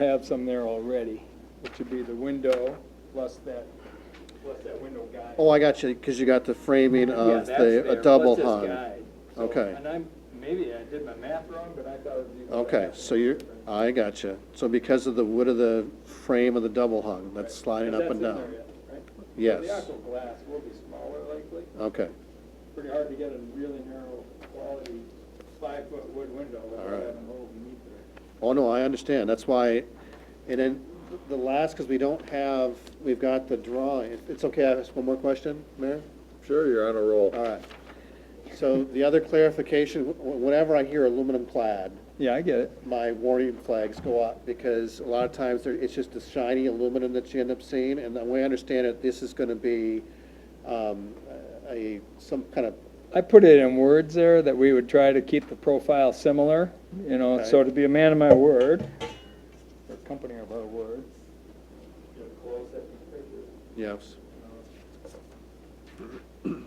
have some there already, which would be the window plus that, plus that window guide. Oh, I got you, because you got uh, the framing Yeah, of that's there, the, a plus double this hung. guide. So, Okay. And I'm, maybe I did my math wrong, but I thought it was. Okay, so you're, I got you. So because of the wood of the frame of the double hung, that's sliding up and down. Yes. The actual glass will be smaller likely, Okay, pretty hard to get a really narrow quality five-foot wood window All without right. having a hole beneath it. oh, no, I understand, that's why, and then the last, because we don't have, we've got the drawing. It's okay, I ask one more question, Mayor? Sure, you're on a All roll. right. So the other clarification, wh- whenever I hear aluminum clad, Yeah, I get it. my warning flags go up, because a lot of times, there- it's just the shiny aluminum that you end up seeing, and the way I understand it, this is gonna be, um, a, some kind of, I put it in words there that we would try to keep the profile similar, you know, so Okay. to be a man of my word, or company of our word. get close at these pictures, yes, you know.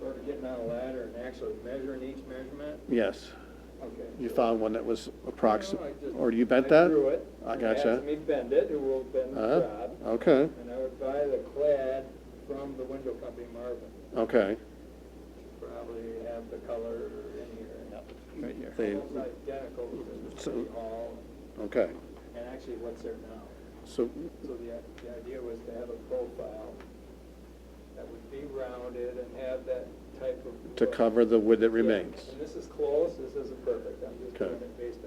Sort of getting on a ladder and actually measuring each measurement, yes. okay. You so- found one that was No, I approximate, just- or you bent I that? drew it. I and they gotcha. asked me bend it, who will bend the Uh, job, okay, and I would buy the clad from the window company Marvin, okay. probably have the color in here. Right here. They- Almost identical to the So- city hall. Okay, And actually, what's there now? so, So the, the idea was to have a profile that would be rounded and have that type of. to look. cover the wood that Yeah, remains, And this is close, this isn't perfect, I'm just doing Okay. it based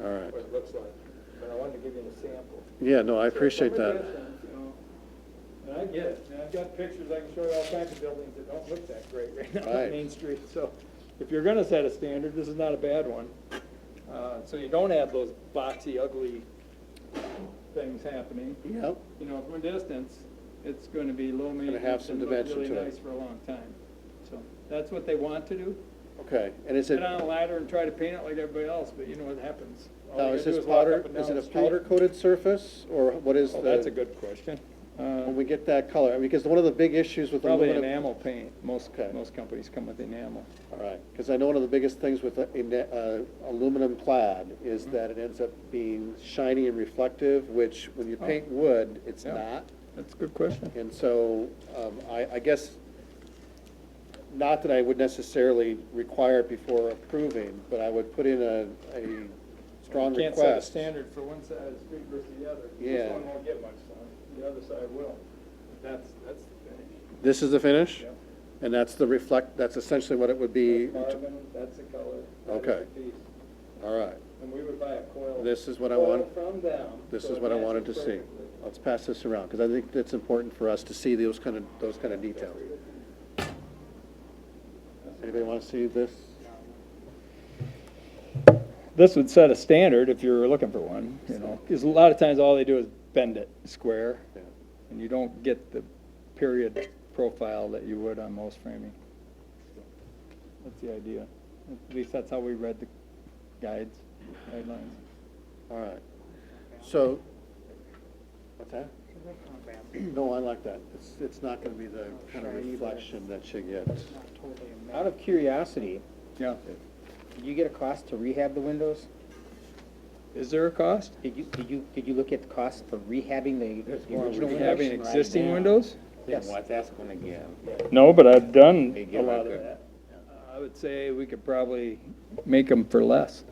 on all right. what it looks like, but I wanted to give you a sample. Yeah, no, I So appreciate some of that. the other things, you know, And I get it, and I've got pictures, I can show you all kinds of buildings that don't look that great right now on Right. Main Street, so if you're gonna set a standard, this is not a bad one. Uh, so you don't have those boxy, ugly things happening. Yep, You know, from a distance, it's gonna be low have maintenance some and look dimension really to it. nice for a long time. So, that's what they want to do, okay, and is it, get on a ladder and try to paint it like everybody else, but you know what happens. All now they is gotta do this walk up powder, and is down it a the street. powder coated surface, or what is the? Oh, that's a good question. Uh, When we get that color, because one of the big issues with Probably aluminum. enamel paint. Most, Okay. most companies come with enamel. All right, because I know one of the biggest things with a- ena- uh, aluminum clad is Mm-hmm. that it ends up being shiny and reflective, which when you Oh. paint wood, it's Yeah. not. That's a good question. And so, um, I, I guess, not that I would necessarily require it before approving, but I would put in a, a strong request. Can't set a standard for one side of the street versus the other. This Yeah. one won't get much sun, the other side will. That's, that's the finish. This is the finish? Yep. And that's the reflect, that's essentially what it would be, That's carbon, that's the color. that is Okay. the piece. all right. And we would buy a coil. This is what I coil want- From them. This so is it what I matches wanted to see. perfectly. Let's pass this around, because I think that's important for us to see those kind of, those kind of details. Anybody want to see this? This would set a standard if you're looking for one, you know, because a lot of times all they do is bend it square. Yeah. And you don't get the period profile that you would on most framing. That's the idea. At least that's how we read the guides, guidelines. All right. So, what's that? No, I like that. It's, it's not going to be the kind of reflection that you get. Out of curiosity, Yeah. did you get a cost to rehab the windows? Is there a cost? Did you, did you, did you look at the cost for rehabbing the- the original windows? Having existing windows? Yes. that's gonna give? No, but I've done They a give lot like of a- that. I would say we could probably make them for less.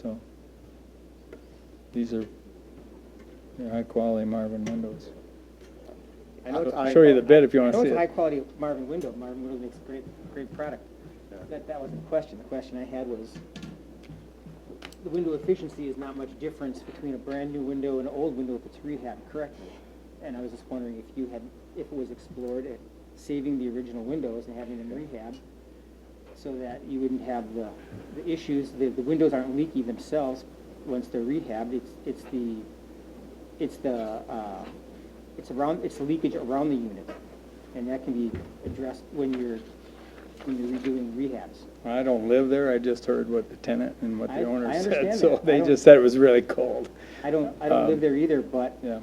So, these are, they're high-quality Marvin windows. I know it's- I'll show you the bid if you I want know to see it's a it. high-quality Marvin window, Marvin window makes a great, great product. That, that wasn't the question, the question I had was, the window efficiency is not much difference between a brand-new window and an old window if it's rehabbed correctly. And I was just wondering if you had, if it was explored at saving the original windows and having them rehabbed, so that you wouldn't have the, the issues, the, the windows aren't leaky themselves once they're rehabbed, it's, it's the, it's the, uh, it's around, it's the leakage around the unit, and that can be addressed when you're, when you're redoing rehabs. I don't live there, I just heard what the tenant and what I- the owner I said, understand so that. I they don't- just said it was really cold, I don't, I don't live there either, but Um, yeah.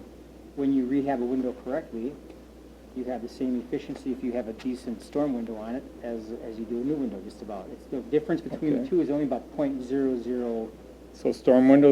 when you rehab a window correctly, you have the same efficiency if you have a decent storm window on it as, as you do a new window, just about. It's, the difference between Okay. the two is only about point zero zero So storm windows